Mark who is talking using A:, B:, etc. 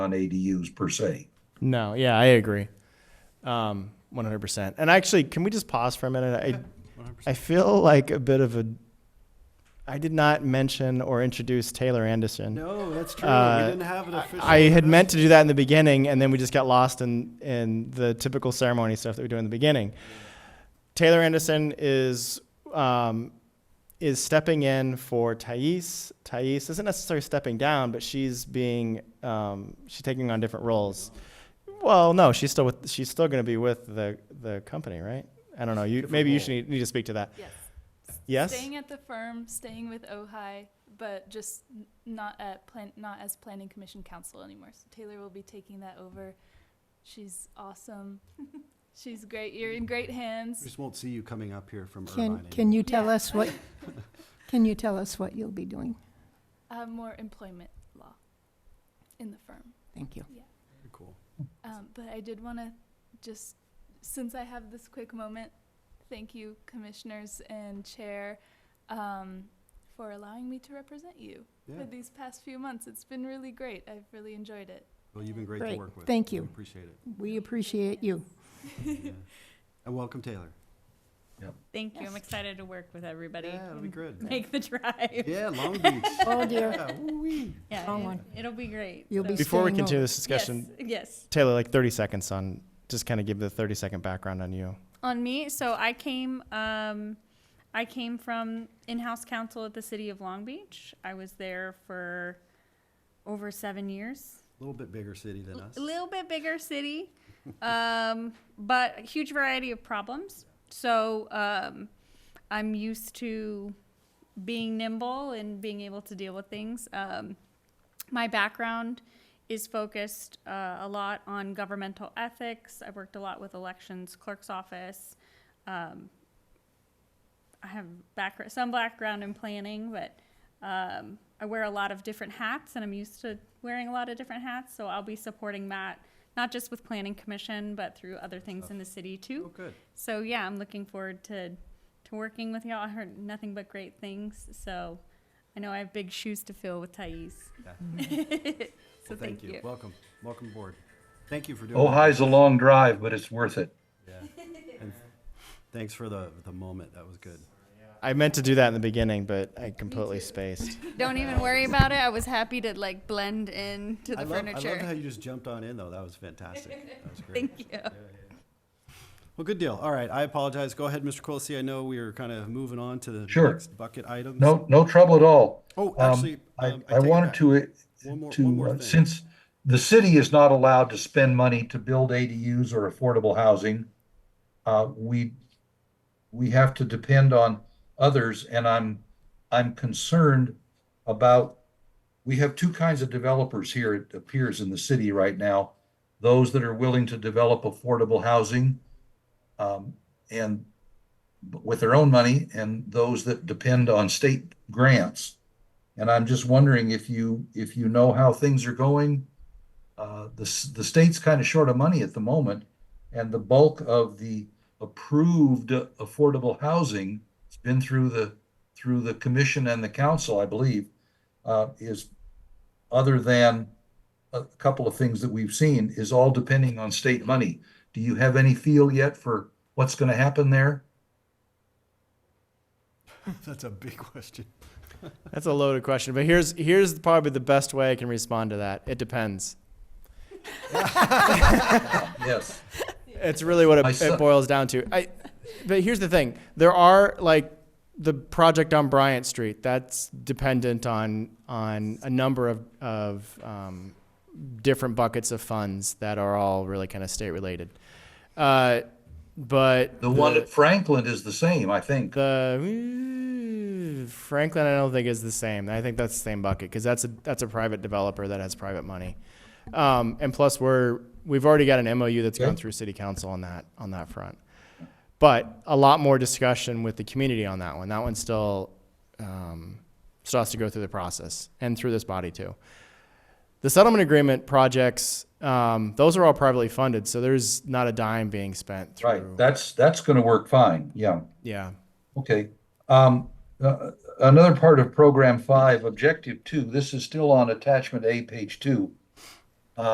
A: on ADUs per se.
B: No, yeah, I agree. Um, 100%. And actually, can we just pause for a minute? I, I feel like a bit of a. I did not mention or introduce Taylor Anderson.
C: No, that's true.
B: Uh,
C: we didn't have an official.
B: I had meant to do that in the beginning, and then we just got lost in, in the typical ceremony stuff that we do in the beginning. Taylor Anderson is um, is stepping in for Thais. Thais isn't necessarily stepping down, but she's being um, she's taking on different roles. Well, no, she's still with she's still going to be with the the company, right? I don't know. You
C: Different
B: maybe you
C: role.
B: should need, need to speak to that.
D: Yes.
B: Yes.
D: Staying at the firm, staying with Ojai, but just n- not at plan, not as planning commission council anymore. So Taylor will be taking that over. She's awesome. She's great. You're in great
C: We
D: hands.
C: just won't see you coming up here from
E: Can,
C: Irvine.
E: can you tell
D: Yeah.
E: us what, can you tell us what you'll be doing?
D: Uh, more employment law in the firm.
E: Thank you.
C: anymore. Cool.
D: Um, but I did want to just, since I have this quick moment, thank you, commissioners and chair, um, for allowing me to represent you
C: Yeah.
D: for these past few months. It's been really great. I've really enjoyed it.
C: Well, you've been great to
E: Great.
C: work with.
E: Thank
C: We
E: you.
C: Appreciate it.
E: We appreciate you.
C: Yeah. And welcome, Taylor.
F: Thank you.
E: Yes.
F: I'm excited to work with everybody.
C: Yeah, it'll be
F: and
C: good.
F: Make the drive.
C: Yeah, Long Beach.
E: Oh, dear.
C: Yeah, woo-wee.
F: Yeah,
E: Oh,
F: it-
E: one.
F: it'll be great.
E: You'll be
F: So-
B: Before we
E: staying
B: continue
E: over.
B: this discussion,
F: Yes, yes.
B: Taylor, like 30 seconds on just kind of give the 30 second background on you.
F: On me, so I came, um, I came from in-house counsel at the city of Long Beach. I was there for over seven years.
C: A little bit bigger city than us.
F: A little bit bigger city, um, but a huge variety of problems. So um, I'm used to being nimble and being able to deal with things. Um, my background is focused uh, a lot on governmental ethics. I've worked a lot with elections, clerk's office. Um, I have background, some background in planning, but um, I wear a lot of different hats and I'm used to wearing a lot of different hats. So I'll be supporting Matt, not just with Planning Commission, but through other things in the city
C: Oh,
F: too.
C: good.
F: So yeah, I'm looking forward to, to working with y'all. I heard nothing but great things. So I know I have big shoes to fill with Thais.
C: Yeah.
F: So
C: Well, thank you. Welcome. Welcome aboard. Thank you for doing that.
A: Ojai's a long drive, but it's worth it.
C: Thanks for the, the moment. That was good.
B: I meant to do that in the beginning, but I completely spaced.
F: Don't even worry about it. I was happy to like blend in to
C: I
F: the
C: love, I love how
F: furniture.
C: you just jumped on in, though. That was fantastic. That was great.
F: Thank you.
C: Well, good deal. All right. I apologize. Go ahead, Mr. Quilisi. I know we are kind of moving on to the
A: Sure.
C: next bucket items.
A: No, no trouble at all.
C: Oh,
A: Um,
C: actually, um,
A: I, I
C: take it
A: wanted
C: back.
A: to,
C: One more- one
A: to,
C: more
A: uh,
C: thing.
A: since the city is not allowed to spend money to build ADUs or affordable housing, uh, we, we have to depend on others, and I'm, I'm concerned about, we have two kinds of developers here, it appears in the city right now. Those that are willing to develop affordable housing, um, and with their own money, and those that depend on state grants. And I'm just wondering if you, if you know how things are going. Uh, the, s- the state's kind of short of money at the moment, and the bulk of the approved affordable housing has been through the, through the commission and the council, I believe, uh, is, other than a couple of things that we've seen, is all depending on state money. Do you have any feel yet for what's going to happen there?
C: That's a big question.
B: That's a loaded question, but here's here's probably the best way I can respond to that. It depends.
A: Yes.
B: It's really what it,
A: I
B: it
A: suck.
B: boils down to. I, but here's the thing: there are like the project on Bryant Street that's dependent on on a number of of um, different buckets of funds that are all really kind of state related. Uh, but
A: The one at Franklin is the same, I think.
B: The mm, Franklin, I don't think is the same. I think that's the same bucket because that's a that's a private developer that has private money, um, and plus we're we've already got an MOU that's
A: Yeah.
B: gone through City Council on that on that front, but a lot more discussion with the community on that one. That one still um, still has to go through the process and through this body too. The settlement agreement projects, um, those are all privately funded, so there's not a dime being spent through.
A: Right, that's, that's gonna work fine, yeah,
B: yeah.
A: okay. Um, uh, another part of program five, objective two, this is still on attachment A, page two.